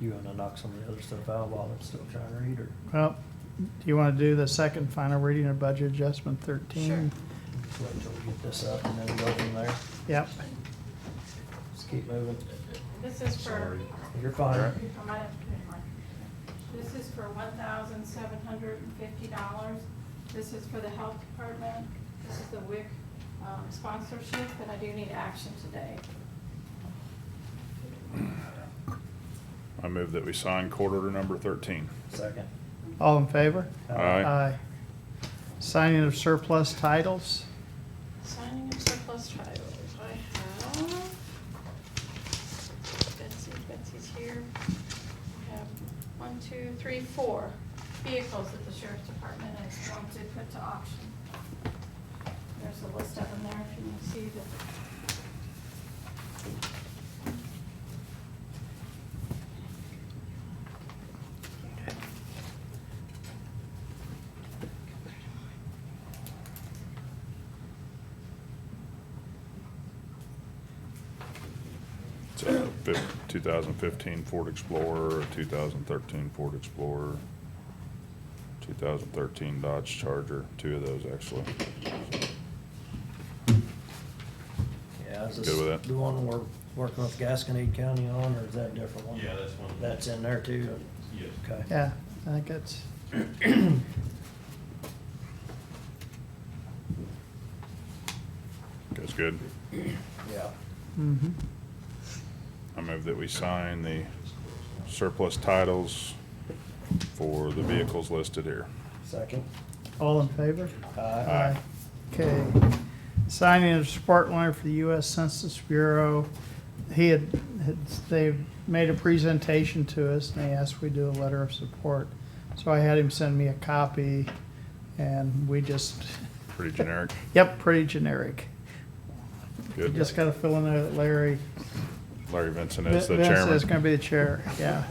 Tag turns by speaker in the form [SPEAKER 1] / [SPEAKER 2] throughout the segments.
[SPEAKER 1] you wanna knock some of the other stuff out while I'm still trying to read her?
[SPEAKER 2] Well, do you want to do the second final reading of budget adjustment 13?
[SPEAKER 1] Just wait until we get this up and then go from there.
[SPEAKER 2] Yep,
[SPEAKER 1] Just keep moving.
[SPEAKER 3] This is for,
[SPEAKER 4] Sorry.
[SPEAKER 1] You're fine.
[SPEAKER 3] I might have to put it in my- this is for one thousand seven hundred and fifty dollars. This is for the health department. This is the WIC um, sponsorship, but I do need action today.
[SPEAKER 4] I move that we sign court order number 13.
[SPEAKER 1] Second.
[SPEAKER 2] all in favor?
[SPEAKER 4] Aye.
[SPEAKER 2] Signing of surplus titles?
[SPEAKER 5] Signing of surplus titles, I have. Betsy, Betsy's here. I have one, two, three, four.
[SPEAKER 3] Vehicles that the sheriff's department is going to put to auction. There's a list of them there if you can see the.
[SPEAKER 4] It's a fif- 2015 Ford Explorer, a 2013 Ford Explorer, 2013 Dodge Charger, two of those actually.
[SPEAKER 1] Yeah, is
[SPEAKER 4] Good
[SPEAKER 1] this
[SPEAKER 4] with that.
[SPEAKER 1] the one we're working with Gasconade County on, or is that a different one?
[SPEAKER 6] Yeah, that's one.
[SPEAKER 1] That's in there too?
[SPEAKER 6] Yes.
[SPEAKER 1] Okay.
[SPEAKER 2] Yeah, I think it's,
[SPEAKER 4] That's good.
[SPEAKER 1] Yeah.
[SPEAKER 2] mm-hmm.
[SPEAKER 4] I move that we sign the surplus titles for the vehicles listed here.
[SPEAKER 1] Second.
[SPEAKER 2] All in favor?
[SPEAKER 1] Aye.
[SPEAKER 2] Okay. Signing of support letter for the U.S. Census Bureau. He had, had- they made a presentation to us and they asked we do a letter of support. So I had him send me a copy and we just,
[SPEAKER 4] Pretty generic.
[SPEAKER 2] yep, pretty generic. You
[SPEAKER 4] Good.
[SPEAKER 2] just gotta fill in there that Larry.
[SPEAKER 4] Larry Vincent is the
[SPEAKER 2] Vince is gonna
[SPEAKER 4] chairman.
[SPEAKER 2] be the chair, yeah.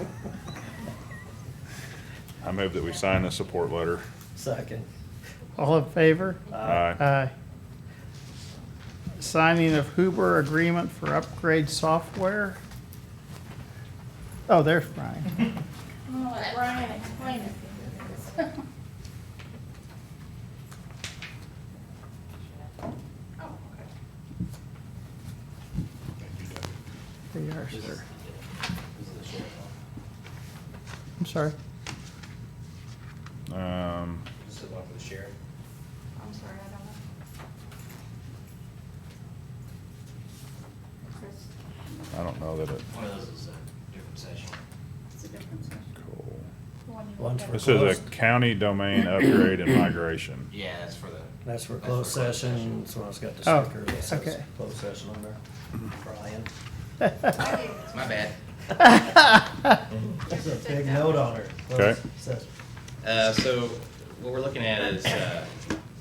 [SPEAKER 4] I move that we sign the support letter.
[SPEAKER 1] Second. Uh,
[SPEAKER 2] All in favor?
[SPEAKER 4] Aye.
[SPEAKER 2] Aye. Signing of Huber agreement for upgrade software. Oh, there's Brian.
[SPEAKER 3] I'm gonna let Brian explain it.
[SPEAKER 5] Oh, okay.
[SPEAKER 2] There you are, sir. I'm sorry.
[SPEAKER 4] Um,
[SPEAKER 6] This is one for the sheriff.
[SPEAKER 3] I'm sorry, I don't know. Chris,
[SPEAKER 4] I don't know that it,
[SPEAKER 6] One of those is a different session.
[SPEAKER 3] it's a different session.
[SPEAKER 4] cool.
[SPEAKER 3] The one you
[SPEAKER 1] One's
[SPEAKER 3] looked
[SPEAKER 1] for
[SPEAKER 3] at.
[SPEAKER 4] This is a
[SPEAKER 1] Closed.
[SPEAKER 4] county domain upgrade and migration.
[SPEAKER 6] Yeah, that's for the.
[SPEAKER 1] That's for closed session, so it's got the
[SPEAKER 2] Oh,
[SPEAKER 1] sticker that says
[SPEAKER 2] okay.
[SPEAKER 1] closed session on there.
[SPEAKER 4] Mm-hmm.
[SPEAKER 1] Brian.
[SPEAKER 3] Oh,
[SPEAKER 6] My bad.
[SPEAKER 1] There's a big note on her.
[SPEAKER 4] Okay.
[SPEAKER 1] Says
[SPEAKER 7] Uh, so what we're looking at is, uh,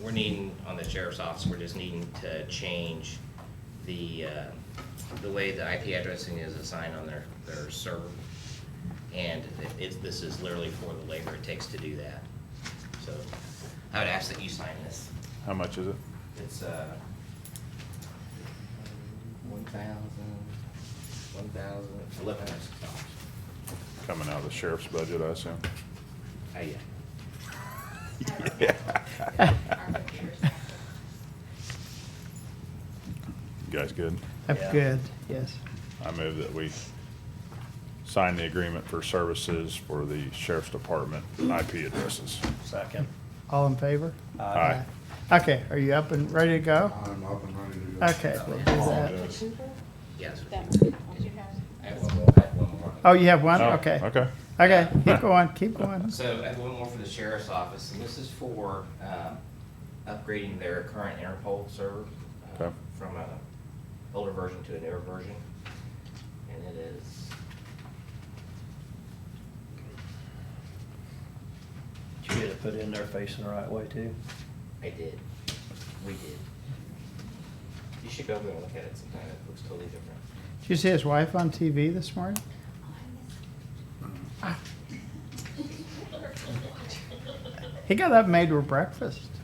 [SPEAKER 7] we're needing, on the sheriff's office, we're just needing to change the, uh, the way the IP addressing is assigned on their, their server. And it- it's, this is literally for the labor it takes to do that. So I would ask that you sign this.
[SPEAKER 4] How much is it?
[SPEAKER 7] It's, uh, one thousand, one thousand, eleven hundred dollars.
[SPEAKER 4] Coming out of the sheriff's budget, I assume.
[SPEAKER 7] Oh, yeah.
[SPEAKER 5] Our computers.
[SPEAKER 4] You guys good?
[SPEAKER 2] That's good, yes.
[SPEAKER 4] I move that we sign the agreement for services for the sheriff's department IP addresses.
[SPEAKER 1] second.
[SPEAKER 2] All in favor?
[SPEAKER 4] Aye.
[SPEAKER 2] Okay, are you up and ready to go?
[SPEAKER 8] I'm up and ready to go.
[SPEAKER 2] Okay, we'll do that.
[SPEAKER 7] Yes.
[SPEAKER 5] That one.
[SPEAKER 3] Did you have?
[SPEAKER 7] I have one more, I have one more.
[SPEAKER 2] Oh, you have one?
[SPEAKER 4] Oh,
[SPEAKER 2] Okay.
[SPEAKER 4] Okay.
[SPEAKER 2] Okay, keep going, keep going.
[SPEAKER 7] So I have one more for the sheriff's office, and this is for um, upgrading their current Interpol server uh,
[SPEAKER 4] Okay.
[SPEAKER 7] from a older version to a newer version. And it is
[SPEAKER 1] Did you get it put in there facing the right way too?
[SPEAKER 7] I did. We did. You should go over there and look at it sometime. It looks totally different.
[SPEAKER 2] Did you see his wife on TV this morning? He got up and made her breakfast.